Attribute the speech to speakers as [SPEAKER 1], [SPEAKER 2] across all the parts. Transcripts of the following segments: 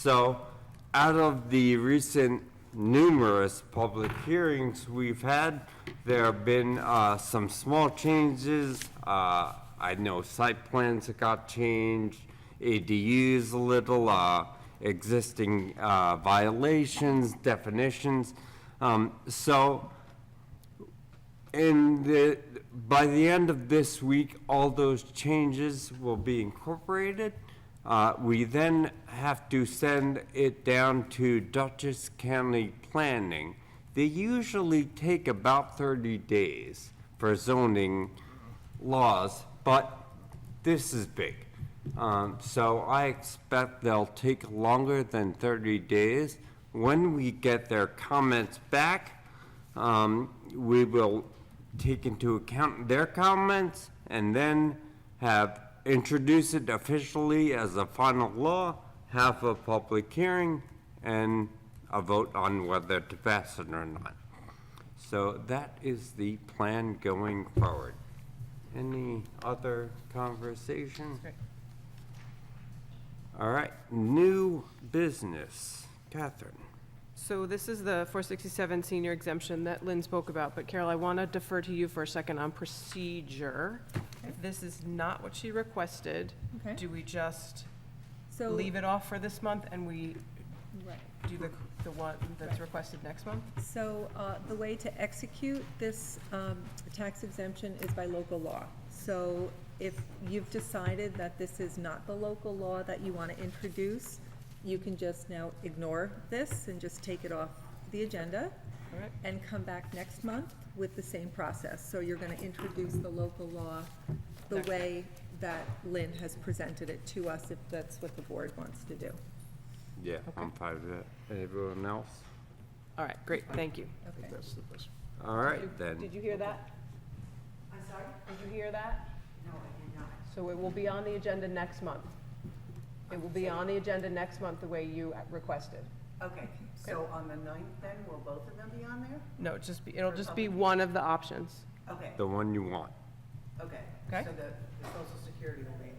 [SPEAKER 1] So, out of the recent numerous public hearings we've had, there have been uh, some small changes. Uh, I know site plans that got changed, ADUs a little, uh, existing uh, violations, definitions. Um, So, and the, by the end of this week, all those changes will be incorporated. Uh, we then have to send it down to Dutchess County Planning. They usually take about thirty days for zoning laws, but this is big. Um, so I expect they'll take longer than thirty days. When we get their comments back, um, we will take into account their comments and then have introduced it officially as a final law, have a public hearing, and a vote on whether to pass it or not. So that is the plan going forward. Any other conversation? All right, new business. Catherine?
[SPEAKER 2] So this is the 467 senior exemption that Lynn spoke about, but Carol, I want to defer to you for a second on procedure. If this is not what she requested,
[SPEAKER 3] Okay.
[SPEAKER 2] do we just
[SPEAKER 3] So,
[SPEAKER 2] leave it off for this month and we
[SPEAKER 3] right.
[SPEAKER 2] do the, the one that's requested next month?
[SPEAKER 3] So uh, the way to execute this um, tax exemption is by local law. So if you've decided that this is not the local law that you want to introduce, you can just now ignore this and just take it off the agenda
[SPEAKER 2] All right.
[SPEAKER 3] and come back next month with the same process. So you're going to introduce the local law the
[SPEAKER 2] Next.
[SPEAKER 3] way that Lynn has presented it to us, if that's what the board wants to do.
[SPEAKER 1] Yeah, I'm fine with that. Everyone else?
[SPEAKER 2] All right, great, thank you.
[SPEAKER 3] Okay.
[SPEAKER 1] All right, then.
[SPEAKER 2] Did you hear that? I'm sorry? Did you hear that? No, I did not. So it will be on the agenda next month. It will be on the agenda next month the way you requested.
[SPEAKER 4] Okay, so on the ninth then, will both of them be on there?
[SPEAKER 2] No, it's just be, it'll just be one of the options.
[SPEAKER 4] Okay,
[SPEAKER 1] The one you want.
[SPEAKER 4] okay.
[SPEAKER 2] Okay.
[SPEAKER 4] So the, the social security will be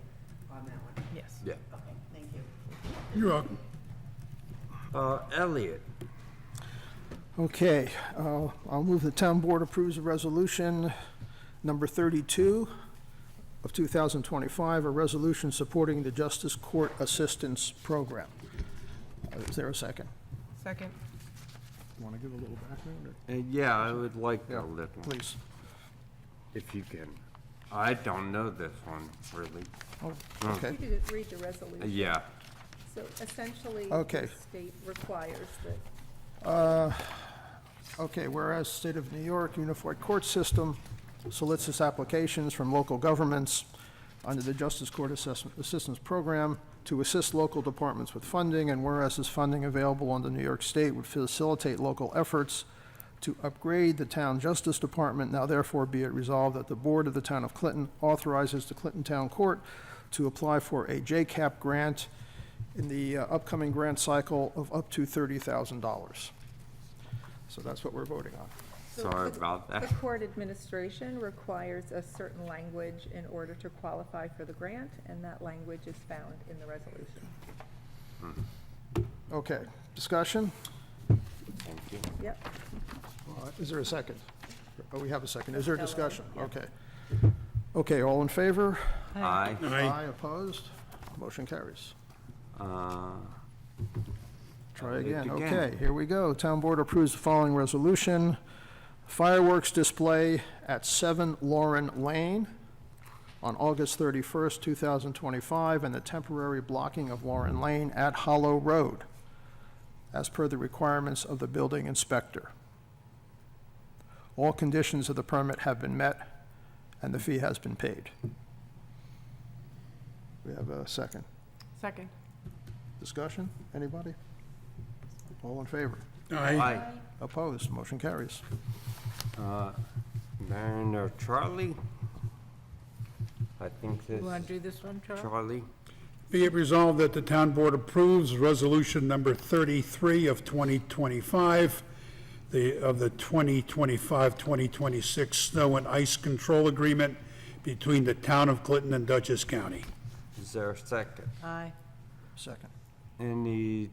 [SPEAKER 4] on that one.
[SPEAKER 2] Yes.
[SPEAKER 1] Yeah.
[SPEAKER 4] Okay, thank you.
[SPEAKER 5] You're welcome.
[SPEAKER 1] Uh, Elliot?
[SPEAKER 5] Okay, uh, I'll move the town board approves of resolution number 32 of 2025, a resolution supporting the Justice Court Assistance Program. Uh, Is there a second?
[SPEAKER 2] Second.
[SPEAKER 5] Want to give a little background, or-
[SPEAKER 1] Uh, yeah, I would like a little,
[SPEAKER 5] please?
[SPEAKER 1] if you can. I don't know this one, really.
[SPEAKER 5] Oh,
[SPEAKER 3] You
[SPEAKER 5] Okay,
[SPEAKER 3] could just read the
[SPEAKER 1] Uh,
[SPEAKER 3] resolution.
[SPEAKER 1] Yeah,
[SPEAKER 3] So essentially,
[SPEAKER 5] Okay.
[SPEAKER 3] the state requires that
[SPEAKER 5] okay, whereas State of New York Unified Court System solicits applications from local governments under the Justice Court Assess- Assistance Program to assist local departments with funding, and whereas this funding available under New York State would facilitate local efforts to upgrade the town justice department, now therefore be it resolved that the board of the town of Clinton authorizes the Clinton Town Court to apply for a JCAP grant in the uh, upcoming grant cycle of up to $30,000. So that's what we're voting on.
[SPEAKER 1] sorry about
[SPEAKER 3] the
[SPEAKER 1] that.
[SPEAKER 3] court administration requires a certain language in order to qualify for the grant, and that language is found in the resolution.
[SPEAKER 5] Okay, discussion?
[SPEAKER 1] Thank you.
[SPEAKER 3] Yep.
[SPEAKER 5] Uh, Is there a second? Oh, we have a second. Is there
[SPEAKER 3] Hello,
[SPEAKER 5] discussion?
[SPEAKER 3] yeah.
[SPEAKER 5] Okay. Okay, all in favor?
[SPEAKER 1] Aye.
[SPEAKER 5] Aye. opposed? Motion carries.
[SPEAKER 1] Uh,
[SPEAKER 5] Try
[SPEAKER 1] Elliot
[SPEAKER 5] again.
[SPEAKER 1] again.
[SPEAKER 5] Okay, here we go. Town Board approves the following resolution. Fireworks display at 7 Lauren Lane on August 31st, 2025, and the temporary blocking of Lauren Lane at Hollow Road, as per the requirements of the building inspector. All conditions of the permit have been met, and the fee has been paid. We have a second.
[SPEAKER 2] Second.
[SPEAKER 5] Discussion? Anybody? All in favor?
[SPEAKER 1] Aye.
[SPEAKER 5] Opposed, motion carries.
[SPEAKER 1] Uh, Baron or Charlie? I think this.
[SPEAKER 6] You want to do this one, Charles?
[SPEAKER 1] Charlie?
[SPEAKER 7] Be it resolved that the town board approves resolution number 33 of 2025, the, of the 2025-2026 snow and ice control agreement between the town of Clinton and Dutchess County.
[SPEAKER 6] Uh.
[SPEAKER 1] Is there a second?
[SPEAKER 6] Aye.
[SPEAKER 5] Second.
[SPEAKER 1] any